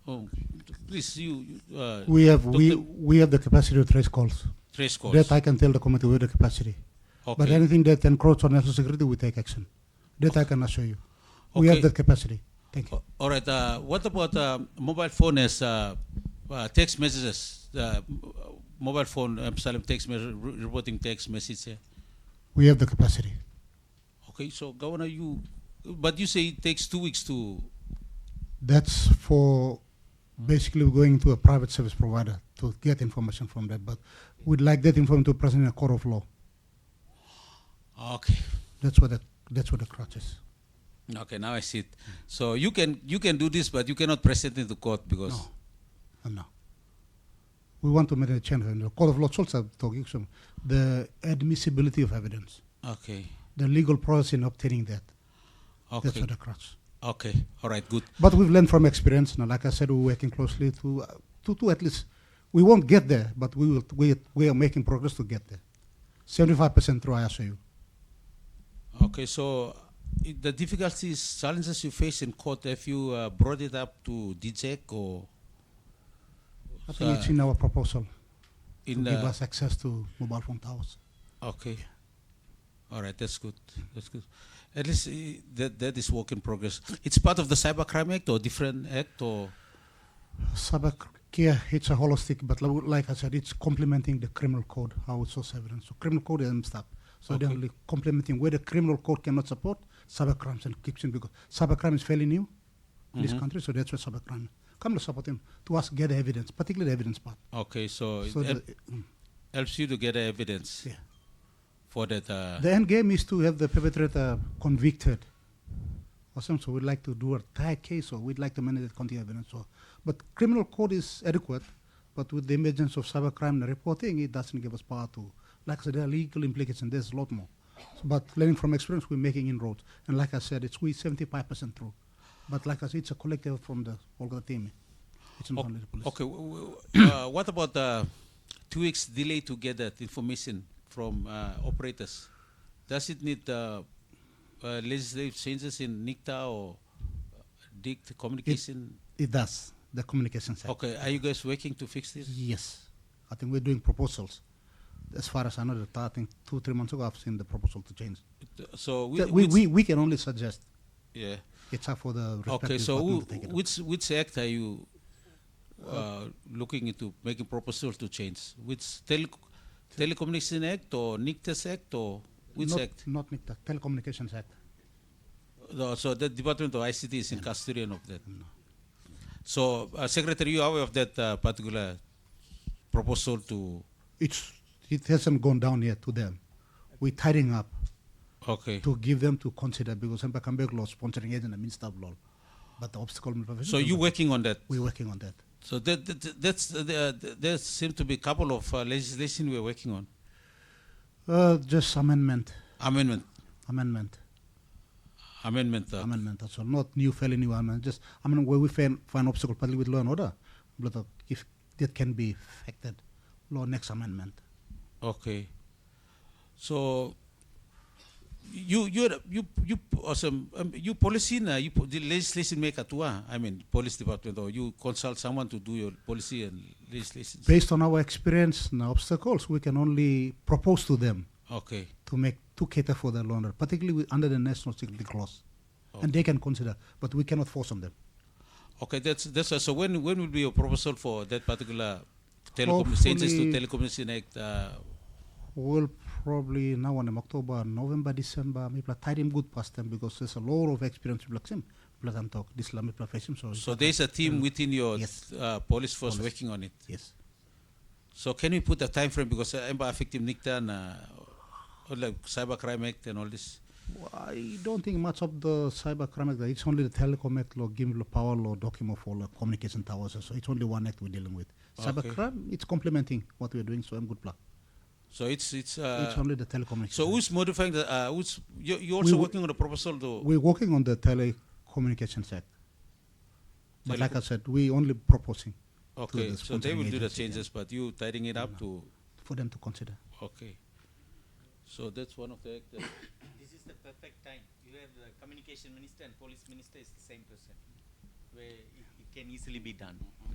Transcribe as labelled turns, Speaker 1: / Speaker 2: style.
Speaker 1: Oh, Please, you, you, uh,
Speaker 2: We have, we,
Speaker 1: Doctor-
Speaker 2: we have the capacity to trace calls.
Speaker 1: trace calls.
Speaker 2: That I can tell the committee with the capacity. But
Speaker 1: Okay.
Speaker 2: anything that encroaches on national security, we take action. That I can assure you. We have
Speaker 1: Okay.
Speaker 2: that capacity. Thank you.
Speaker 1: A- All right. Uh, what about uh, mobile phone as uh, uh, text messages? Uh, m- mobile phone, um, Salem text message, reporting text message. Here.
Speaker 2: We have the capacity.
Speaker 1: Okay. So, Governor, you, but you say it takes two weeks to.
Speaker 2: That's for basically going to a private service provider to get information from that. But we'd like that information to present in a court of law.
Speaker 1: Okay.
Speaker 2: That's what the, that's what the crutch is.
Speaker 1: Okay. Now I see it. So you can you can do this, but you cannot present it to court because.
Speaker 2: No. And no. We want to make a change in the court of law. It's also talking some the admissibility of evidence,
Speaker 1: Okay.
Speaker 2: the legal process in obtaining that. That's
Speaker 1: Okay.
Speaker 2: what the crutch.
Speaker 1: Okay. All right. Good.
Speaker 2: But we've learned from experience. Now, like I said, we're working closely to, uh, to, to at least, we won't get there, but we will. We, we are making progress to get there. Seventy-five percent through, I assure you.
Speaker 1: Okay. So. i- The difficulties, challenges you face in court, have you uh, brought it up to DJEC or
Speaker 2: I think it's
Speaker 1: Sir.
Speaker 2: in our proposal
Speaker 1: in the?
Speaker 2: to give us access to mobile phone towers.
Speaker 1: Okay. All right, that's good. That's good. At least uh, that that is work in progress. It's part of the Cybercrime Act or different act or
Speaker 2: Cyber care, it's a holistic, but lo- like I said, it's complementing the criminal code, how it source evidence. So criminal code and stuff. So they're
Speaker 1: Okay.
Speaker 2: only complementing where the criminal code cannot support cyber crimes and kicks in because cyber crime is fairly new in this
Speaker 1: Mhm.
Speaker 2: country, so that's where cyber crime come to support him to us get evidence, particularly the evidence part.
Speaker 1: okay. So,
Speaker 2: So
Speaker 1: it hel-
Speaker 2: the, mm,
Speaker 1: helps you to get evidence
Speaker 2: yeah.
Speaker 1: for that. Uh,
Speaker 2: the end game is to have the perpetrator convicted. Or something. So we'd like to do a tight case, or we'd like to manage it county evidence. Or, but criminal code is adequate, but with the emergence of cybercrime and reporting, it doesn't give us power to. Like I said, there are legal implications. There's a lot more. But learning from experience, we're making inroads. And like I said, it's we 75% through. But like I said, it's a collective from the whole of the team. It's not
Speaker 1: o-
Speaker 2: only the police.
Speaker 1: okay. w- w- uh, what about uh, two weeks delay to get that information from uh, operators? Does it need uh, uh, legislative changes in NICTA or uh, DICT communication?
Speaker 2: It does the communication side.
Speaker 1: Okay. Are you guys working to fix this?
Speaker 2: Yes, I think we're doing proposals. As far as I know, that I think two, three months ago, I've seen the proposal to change.
Speaker 1: So
Speaker 2: Th-
Speaker 1: whi-
Speaker 2: We,
Speaker 1: which-
Speaker 2: we, we can only suggest.
Speaker 1: yeah.
Speaker 2: It's up for the
Speaker 1: Okay,
Speaker 2: respective
Speaker 1: so
Speaker 2: department
Speaker 1: who-
Speaker 2: to take it up.
Speaker 1: which which act are you uh, looking into making proposal to change? Which tele- telecommunication act or NICTAS act or which
Speaker 2: Not-
Speaker 1: act?
Speaker 2: Not NICTA, Telecommunications Act.
Speaker 1: No, so the Department of ICT is in custodian of that. So uh, Secretary, you are aware of that uh, particular proposal to?
Speaker 2: It's, it hasn't gone down yet to them. We're tidying up
Speaker 1: Okay.
Speaker 2: to give them to consider because Sempa Kambek law sponsoring agent and minister of law. But the obstacle.
Speaker 1: So you working on that?
Speaker 2: We're working on that.
Speaker 1: So that, that that's the, the, there seem to be a couple of uh, legislation we're working on
Speaker 2: Uh, just amendment,
Speaker 1: amendment
Speaker 2: amendment.
Speaker 1: amendment. Uh,
Speaker 2: amendment that's all not new felony amendment just i mean where we find, find obstacle partly with law and order but uh, if that can be affected law next amendment
Speaker 1: Okay. So you you you you awesome um, you policy na you po- the legislation maker tu ah I mean police department or you consult someone to do your policy and legislation.
Speaker 2: based on our experience and obstacles we can only propose to them
Speaker 1: Okay.
Speaker 2: to make to cater for the law and order particularly with, under the national security clause and they can consider but we cannot force on them
Speaker 1: Okay. That's that's so when when will be your proposal for that particular telecom changes to
Speaker 2: Hopefully-
Speaker 1: telecommunication act? Uh,
Speaker 2: we'll probably now on in october november december maybe like tight him good past them because there's a lot of experience with like him plus i'm talk this lamy profession so
Speaker 1: so there's a team within your
Speaker 2: Yes.
Speaker 1: uh, police force
Speaker 2: Police.
Speaker 1: working on it.
Speaker 2: yes
Speaker 1: So can we put a time frame because uh, emba affective NICTA and uh, or like cybercrime act and all this.
Speaker 2: I don't think much of the cyber crime act. It's only the telecom act law, giving law, power law, document for law, communication towers. So it's only one act we're dealing with. Cyber
Speaker 1: Okay.
Speaker 2: crime, it's complementing what we're doing. So I'm good plan.
Speaker 1: So it's it's. Uh,
Speaker 2: it's only the telecommunication.
Speaker 1: So who's modifying the, uh, who's, you, you're also
Speaker 2: wo-
Speaker 1: working on a proposal though?
Speaker 2: we're working on the telecommunications act. But like I
Speaker 1: Telecom-
Speaker 2: said, we're only proposing
Speaker 1: Okay,
Speaker 2: the
Speaker 1: so they will do the
Speaker 2: sponsoring agency,
Speaker 1: changes, but you tidying it up to,
Speaker 2: for them to consider.
Speaker 1: okay. So that's one of the, act that-
Speaker 3: This is the perfect time. You have the communication minister and police minister is the same person, where it, it can easily be done.